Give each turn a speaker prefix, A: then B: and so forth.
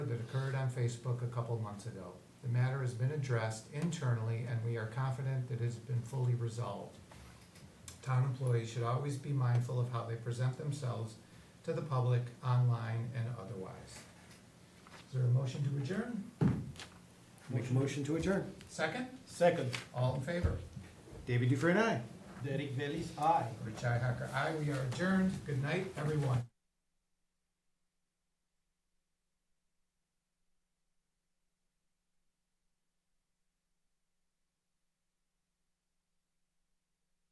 A: occurred on Facebook a couple months ago. The matter has been addressed internally, and we are confident that it has been fully resolved. Town employees should always be mindful of how they present themselves to the public, online and otherwise. Is there a motion to adjourn?
B: Make a motion to adjourn.
A: Second?
C: Second,
A: All in favor?
B: David Dufresne, aye.
C: Derek Bailey's aye.
A: Richi Hacker, aye. We are adjourned. Good night, everyone.